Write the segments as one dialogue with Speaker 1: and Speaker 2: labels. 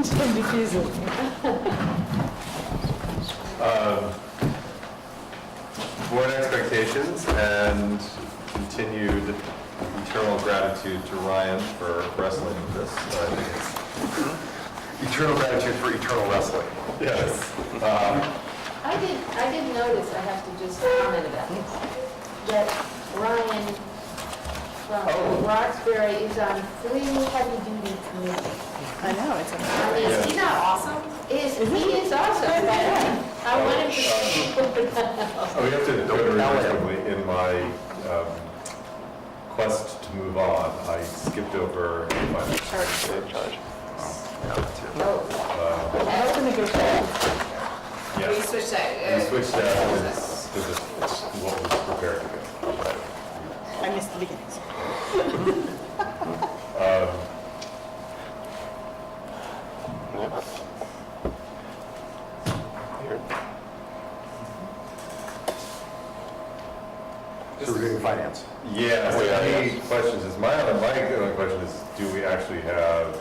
Speaker 1: Jim Diffuser.
Speaker 2: board expectations and continued eternal gratitude to Ryan for wrestling with this. I think it's- Eternal gratitude for eternal wrestling. Yes.
Speaker 3: I did, I did notice, I have to just comment about this, that Ryan from Roxbury is on three heavy-duty committees.
Speaker 1: I know, it's a...
Speaker 3: I mean,
Speaker 2: Yeah.
Speaker 3: he's not awesome. Is, he is awesome, but I want him to.
Speaker 2: Oh, We have to, notably, in my um, quest to move on, I skipped over my charge. uh,
Speaker 1: I hope the negotiations...
Speaker 4: We
Speaker 2: Yes,
Speaker 4: switched that.
Speaker 2: we
Speaker 4: uh,
Speaker 2: switched that, and it's, this is what was prepared to go.
Speaker 1: I missed the beginning.
Speaker 5: So we're doing finance.
Speaker 2: Yeah, so
Speaker 5: Oh, yeah,
Speaker 2: any
Speaker 5: yes.
Speaker 2: questions, is my, other- my other question is, do we actually have,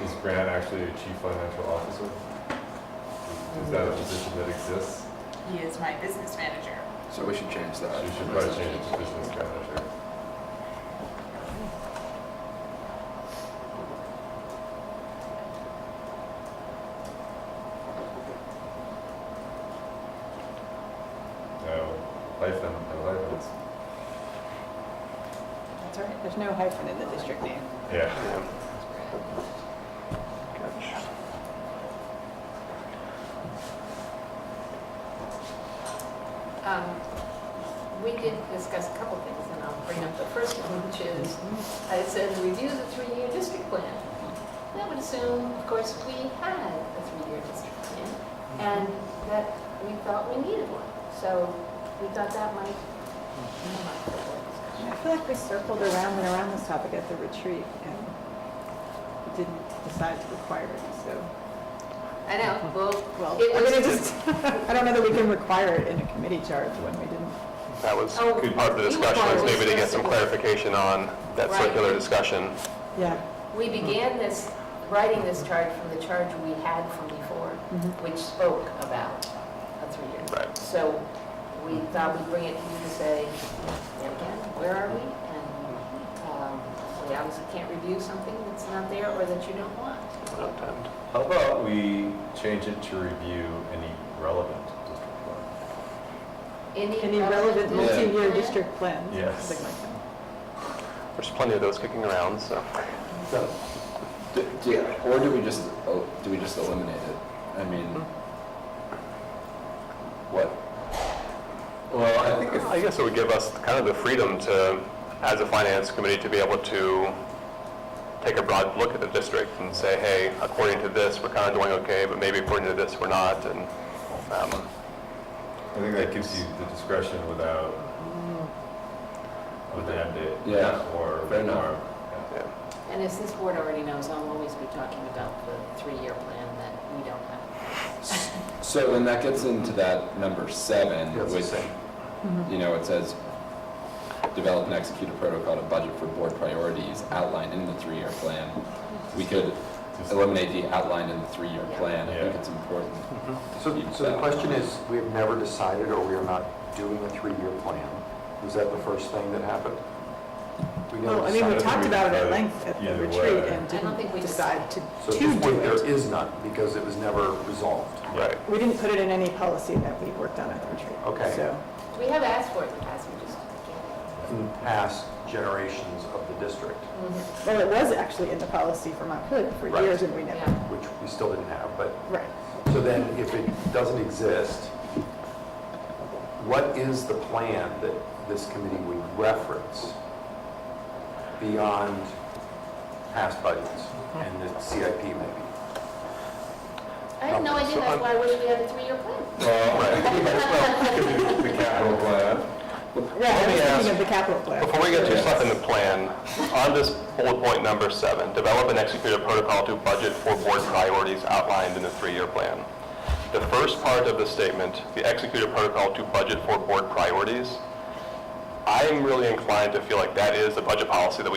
Speaker 2: is Grant actually a chief financial officer? Is that a position that exists?
Speaker 4: He is my business manager.
Speaker 5: So we should change
Speaker 2: So
Speaker 5: that.
Speaker 2: You should probably change it to business manager. No, hyphen, no hyphens.
Speaker 1: That's all right, there's no hyphen in the district name.
Speaker 2: Yeah.
Speaker 3: Um, We did discuss a couple things, and I'll bring up the first one, which is,
Speaker 6: Mm-hmm.
Speaker 3: I said, review the three-year district plan. That would assume, of course, we had a three-year district plan,
Speaker 6: Mm-hmm.
Speaker 3: and that we thought we needed one. So we thought that might come up for board discussion.
Speaker 6: Mm-hmm.
Speaker 1: I feel like we circled around and around this topic at the retreat and didn't decide to require it, so...
Speaker 3: I know,
Speaker 6: Mm-hmm.
Speaker 3: well,
Speaker 1: Well,
Speaker 3: it
Speaker 1: I mean, it just,
Speaker 3: was,
Speaker 1: I don't know that we can require it in a committee charge when we didn't.
Speaker 6: That was
Speaker 3: Oh,
Speaker 6: good part of the
Speaker 3: you
Speaker 6: discussion, was
Speaker 3: were-
Speaker 6: maybe to get some clarification on that
Speaker 3: Right.
Speaker 6: circular discussion.
Speaker 1: Yeah.
Speaker 3: we began this, writing this charge from the charge we had from before, which spoke about a three-year.
Speaker 6: Right.
Speaker 3: So we thought we'd bring it to you to say, "There again, where are we? And um, we obviously can't review something that's not there or that you don't want.
Speaker 6: Sometimes.
Speaker 2: How about we change it to review any relevant district plan?
Speaker 1: Any relevant
Speaker 3: district
Speaker 1: multi-year
Speaker 3: plan?
Speaker 1: district plans? or
Speaker 2: Yes.
Speaker 1: something like that.
Speaker 6: There's plenty of those kicking around, so.
Speaker 5: So, d- do you- Or do we just, el- do we just eliminate it? I mean, what?
Speaker 6: Well, I think. I guess it would give us kind of the freedom to, as a finance committee, to be able to take a broad look at the district and say, hey, according to this, we're kind of doing okay, but maybe according to this, we're not, and, um,
Speaker 2: I think that gives you the discretion without a mandate
Speaker 5: Mm. Yeah,
Speaker 2: or
Speaker 5: fair enough.
Speaker 2: or-
Speaker 6: yeah.
Speaker 3: And as this board already knows, I'll always be talking about the three-year plan that we don't have.
Speaker 5: So then that gets into that number seven, which, you know, it says, develop and execute a protocol to budget for board priorities outlined in the three-year plan. We could
Speaker 2: Just-
Speaker 5: eliminate the outlined in the three-year plan. I think
Speaker 2: Yeah.
Speaker 5: it's important.
Speaker 7: So, so the question is, we have never decided, or we are not doing a three-year plan. Was that the first thing that happened? We never
Speaker 1: Well, I mean, we
Speaker 2: decided
Speaker 7: decided.
Speaker 1: talked about it at
Speaker 2: about it
Speaker 1: length at the
Speaker 2: either
Speaker 1: retreat
Speaker 2: way.
Speaker 1: and
Speaker 3: I don't think
Speaker 1: didn't
Speaker 3: we
Speaker 1: decide to to
Speaker 7: So at this point,
Speaker 1: do
Speaker 7: there
Speaker 1: it.
Speaker 7: is none, because it was never resolved.
Speaker 6: Right.
Speaker 1: We didn't put it in any policy that we worked on at the retreat.
Speaker 7: Okay.
Speaker 1: So,
Speaker 3: We have asked for it in the past, we just can't.
Speaker 7: In past generations of the district,
Speaker 3: Mm-hmm.
Speaker 1: well, it was actually in the policy for Mount Hood for
Speaker 6: Right.
Speaker 1: years and we never,
Speaker 3: Yeah.
Speaker 7: which we still didn't have, but,
Speaker 1: right.
Speaker 7: so then, if it doesn't exist, what is the plan that this committee would reference beyond past budgets and the CIP maybe?
Speaker 3: I have no idea, that's why I wish we had a three-year plan.
Speaker 2: Uh, Well, right. Well, The capital plan.
Speaker 1: Yeah, I
Speaker 6: Let me
Speaker 1: was thinking
Speaker 6: ask-
Speaker 1: of the capital plan.
Speaker 6: Before we get too stuck in the plan, on this bullet point number seven, develop and execute a protocol to budget for board priorities outlined in the three-year plan. The first part of the statement, the execute a protocol to budget for board priorities, I'm really inclined to feel like that is the budget policy that we